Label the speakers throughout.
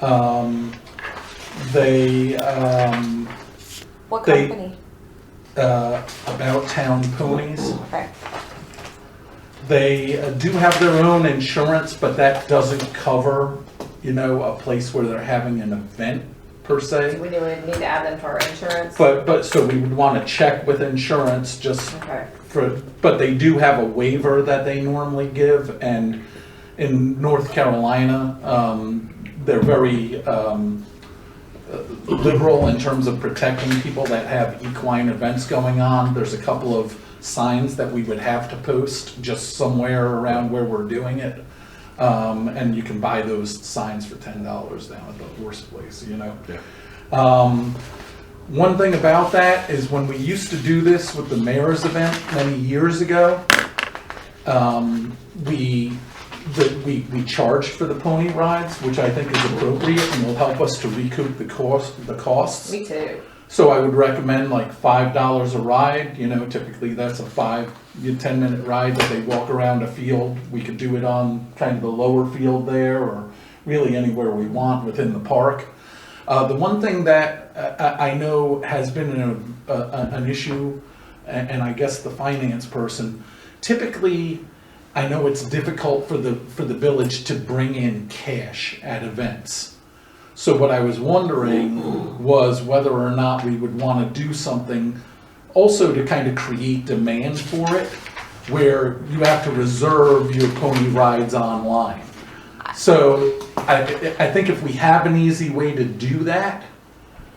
Speaker 1: Um, They, um,
Speaker 2: What
Speaker 1: They-
Speaker 2: company?
Speaker 1: uh, About Town Ponies,
Speaker 2: Okay,
Speaker 1: they uh, do have their own insurance, but that doesn't cover, you know, a place where they're having an event per se.
Speaker 3: We do need to add them to our insurance.
Speaker 1: But, but, so we would want to check with insurance just
Speaker 3: Okay,
Speaker 1: for, but they do have a waiver that they normally give, and in North Carolina, um, they're very, um, liberal in terms of protecting people that have equine events going on. There's a couple of signs that we would have to post just somewhere around where we're doing it. Um, and you can buy those signs for ten dollars down at the horse place, you know? Um, one thing about that is when we used to do this with the mayor's event many years ago, um, we, the, we, we charged for the pony rides, which I think is appropriate and will help us to recoup the cost, the costs.
Speaker 3: me too.
Speaker 1: So I would recommend like five dollars a ride, you know, typically that's a five, you- ten minute ride that they walk around a field. We could do it on kind of the lower field there or really anywhere we want within the park. Uh, the one thing that uh, I, I know has been an, a, a- an issue, a- and I guess the finance person, typically, I know it's difficult for the, for the village to bring in cash at events. So what I was wondering was whether or not we would want to do something also to kind of create demand for it, where you have to reserve your pony rides online. So I, I think if we have an easy way to do that,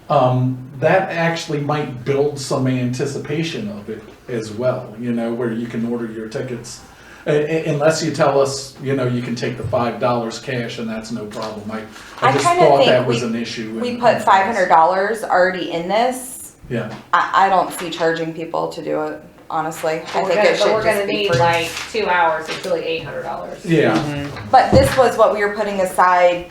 Speaker 1: um, that actually might build some anticipation of it as well, you know, where you can order your tickets. Uh, unless you tell us, you know, you can take the five dollars cash and that's no problem. I, I
Speaker 2: I
Speaker 1: just
Speaker 2: kinda
Speaker 1: thought
Speaker 2: think
Speaker 1: that was
Speaker 2: we-
Speaker 1: an issue.
Speaker 2: we
Speaker 1: and-
Speaker 2: put five hundred dollars already in this.
Speaker 1: Yeah,
Speaker 2: I, I don't see charging people to do it, honestly. I
Speaker 3: But we're
Speaker 2: think
Speaker 3: gonna,
Speaker 2: it
Speaker 3: but we're
Speaker 2: should
Speaker 3: gonna
Speaker 2: just be
Speaker 3: need
Speaker 2: free.
Speaker 3: like two hours, it's really eight hundred dollars. Mm-hmm.
Speaker 1: yeah,
Speaker 2: But this was what we were putting aside.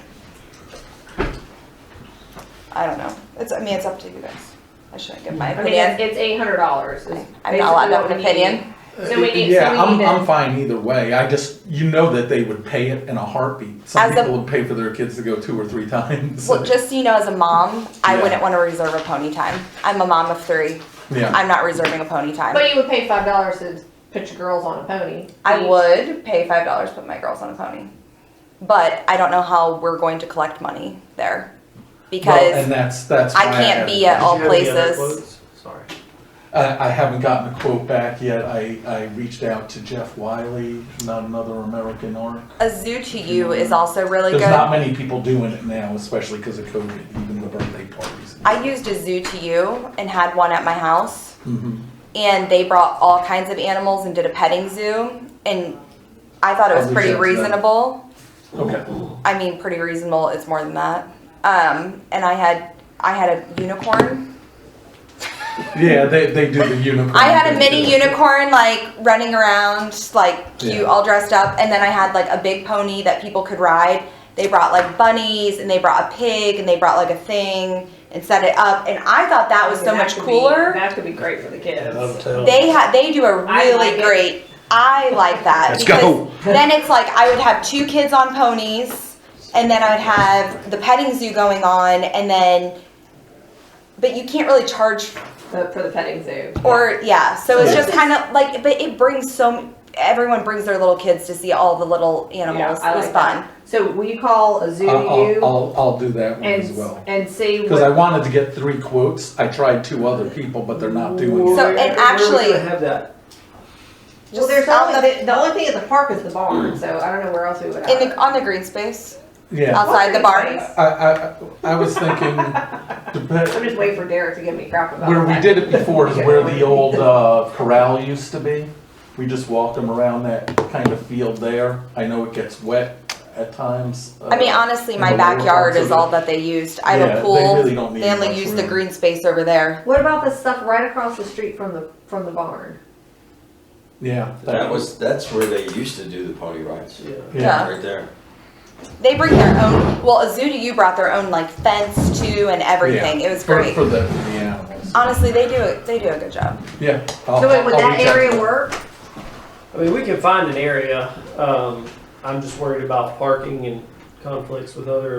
Speaker 2: I don't know. It's, I mean, it's up to you guys. I shouldn't give my
Speaker 3: I mean, it's,
Speaker 2: opinion.
Speaker 3: it's eight hundred dollars.
Speaker 2: I'm not allowed to have an opinion.
Speaker 3: So we need- so
Speaker 1: Uh, yeah.
Speaker 3: we
Speaker 1: I'm,
Speaker 3: need to-
Speaker 1: I'm fine either way. I just you know that they would pay it in a heartbeat. Some
Speaker 2: As a-
Speaker 1: people would pay for their kids to go two or three times.
Speaker 2: Well, just so you know, as a mom, I
Speaker 1: Yeah.
Speaker 2: wouldn't want to reserve a pony time. I'm a mom of three.
Speaker 1: yeah,
Speaker 2: I'm not reserving a pony time.
Speaker 3: But you would pay five dollars to put your girls on a pony.
Speaker 2: I would pay five dollars to put my girls on a pony. But I don't know how we're going to collect money there.
Speaker 1: well,
Speaker 2: Because
Speaker 1: and that's that's.
Speaker 2: I
Speaker 1: why
Speaker 2: can't
Speaker 1: had-
Speaker 2: be at
Speaker 4: Did
Speaker 2: all
Speaker 4: you have any other
Speaker 2: places.
Speaker 4: quotes? Sorry.
Speaker 1: I, I haven't gotten a quote back yet. I, I reached out to Jeff Wiley, not another American orc.
Speaker 2: a zoo to you is also really
Speaker 1: There's
Speaker 2: good.
Speaker 1: not many people doing it now, especially because of COVID, even the birthday parties.
Speaker 2: I used a zoo to you and had one at my house,
Speaker 1: Mhm.
Speaker 2: and they brought all kinds of animals and did a petting zoo, and I thought it was
Speaker 1: Probably
Speaker 2: pretty
Speaker 1: should, yeah.
Speaker 2: reasonable.
Speaker 1: Okay.
Speaker 2: I mean, pretty reasonable. It's more than that. Um, and I had I had a unicorn.
Speaker 1: Yeah, they, they do the unicorn.
Speaker 2: I had a
Speaker 1: thing,
Speaker 2: mini
Speaker 1: too.
Speaker 2: unicorn like running around, like cute,
Speaker 1: Yeah.
Speaker 2: all dressed up, and then I had like a big pony that people could ride. They brought like bunnies, and they brought a pig, and they brought like a thing and set it up, and I thought that was so much cooler.
Speaker 3: That could be great for the kids.
Speaker 2: They ha they do a
Speaker 3: I like
Speaker 2: really
Speaker 3: it.
Speaker 2: great. I like that.
Speaker 5: Let's
Speaker 2: because
Speaker 5: go.
Speaker 2: Then it's like I would have two kids on ponies, and then I would have the petting zoo going on, and then. But you can't really charge,
Speaker 3: But for the petting zoo.
Speaker 2: or yeah. So it's
Speaker 1: Yeah.
Speaker 2: just kind of like, but it brings so m- everyone brings their little kids to see all the little animals.
Speaker 3: Yeah, I
Speaker 2: it was
Speaker 3: like
Speaker 2: fun.
Speaker 3: that. So will you call a zoo
Speaker 1: I'll,
Speaker 3: to
Speaker 1: I'll,
Speaker 3: you
Speaker 1: I'll, I'll do that one as well.
Speaker 3: and, and see
Speaker 1: Because I
Speaker 3: what,
Speaker 1: wanted to get three quotes. I tried two other people, but they're not doing it.
Speaker 2: So- and actually-
Speaker 4: Where are we gonna have that?
Speaker 3: well,
Speaker 2: Just
Speaker 3: there's
Speaker 2: out
Speaker 3: only,
Speaker 2: the-
Speaker 3: the, the only thing at the park is the barn, so I don't know where else we would have.
Speaker 2: In
Speaker 3: it.
Speaker 2: the on the green space
Speaker 1: Yeah,
Speaker 2: outside the
Speaker 3: What
Speaker 2: barn.
Speaker 3: green space?
Speaker 1: I, I, I was thinking, dep-
Speaker 3: I'm just waiting for Derek to give me crap about
Speaker 1: Where we
Speaker 3: that.
Speaker 1: did it before is where the old uh, corral used to be. We just walked them around that kind of field there. I know it gets wet at times.
Speaker 2: I mean, honestly,
Speaker 1: in
Speaker 2: my
Speaker 1: the lower
Speaker 2: backyard
Speaker 1: parts
Speaker 2: is
Speaker 1: of
Speaker 2: all
Speaker 1: it.
Speaker 2: that they used. I have
Speaker 1: Yeah,
Speaker 2: a
Speaker 1: they
Speaker 2: pool.
Speaker 1: really don't need
Speaker 2: They only
Speaker 1: much
Speaker 2: use the
Speaker 1: room.
Speaker 2: green space over there.
Speaker 3: What about the stuff right across the street from the from the barn?
Speaker 1: Yeah.
Speaker 5: That was, that's where they used to do the pony rides.
Speaker 1: Yeah.
Speaker 5: Right there.
Speaker 2: They bring their own. Well, Azuda, you brought their own like fence too and everything. It was
Speaker 1: For-
Speaker 2: great.
Speaker 1: For
Speaker 2: Um,
Speaker 1: the, for the animals.
Speaker 2: Honestly, they do it. They do a good job.
Speaker 1: Yeah. I'll-
Speaker 3: So wait, would
Speaker 1: I'll
Speaker 3: that
Speaker 1: reach out to
Speaker 3: area
Speaker 1: them.
Speaker 3: work?
Speaker 4: I mean, we can find an area, um, I'm just worried about parking and conflicts with other